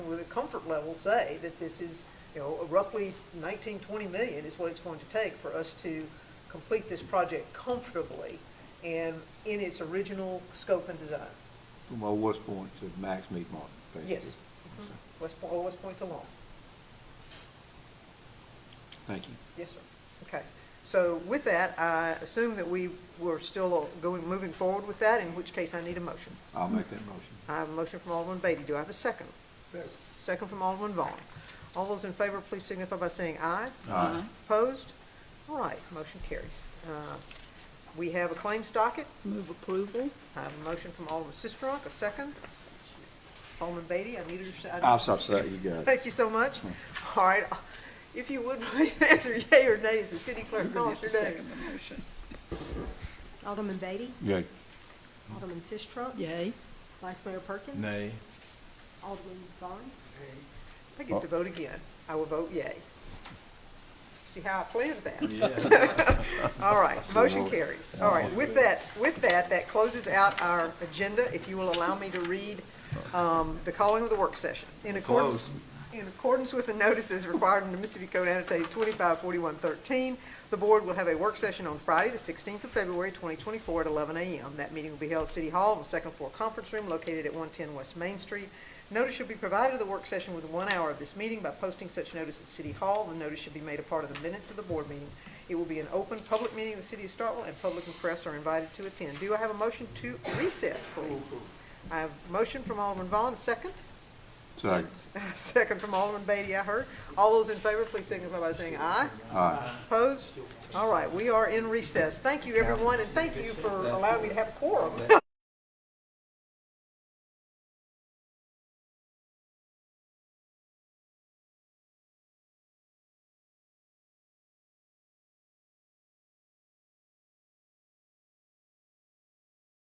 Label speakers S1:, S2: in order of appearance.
S1: comfort level say that this is, you know, roughly 19, 20 million is what it's going to take for us to complete this project comfortably and in its original scope and design.
S2: From Old West Point to Max Meat Market, basically.
S1: Yes. West Point, oh, West Point to Long.
S2: Thank you.
S1: Yes, sir. Okay. So with that, I assume that we were still going, moving forward with that, in which case I need a motion.
S2: I'll make that motion.
S1: I have a motion from Alderman Beatty. Do I have a second? Second from Alderman Vaughn. All those in favor, please signify by saying aye.
S2: Aye.
S1: Opposed? All right, motion carries. Uh, We have a claims docket.
S3: Move approval.
S1: I have a motion from Alderman Sistrunk, a second. Alderman Beatty, I needed your. se- I-
S2: I'll stop that, you got it.
S1: Thank you so much. All right, if you would, please answer yea or nay as the city clerk
S3: You're gonna
S1: calls
S3: have to
S1: your name.
S3: second the motion.
S4: Alderman Beatty?
S2: Yeah.
S4: Alderman Sistrunk?
S3: Yay.
S4: Vice Mayor Perkins?
S5: Nay.
S4: Alderman Vaughn?
S1: I get to vote again. I will vote yay. See how I planned that? All right, motion carries. All right, with that, with that, that closes out our agenda. If you will allow me to read um, the calling of the work session. In accordance, in accordance with the notices required under Mississippi Code annotated 254113, the board will have a work session on Friday, the 16th of February, 2024, at 11 a.m. That meeting will be held at City Hall in the second floor conference room located at 110 West Main Street. Notice should be provided of the work session within one hour of this meeting by posting such notice at City Hall. The notice should be made a part of the minutes of the board meeting. It will be an open public meeting of the city of Starkville, and public and press are invited to attend. Do I have a motion to recess, please? I have a motion from Alderman Vaughn, second.
S2: Second.
S1: Second from Alderman Beatty, I heard. All those in favor, please signify by saying aye.
S2: Aye.
S1: Opposed? All right, we are in recess. Thank you, everyone, and thank you for allowing me to have a quorum.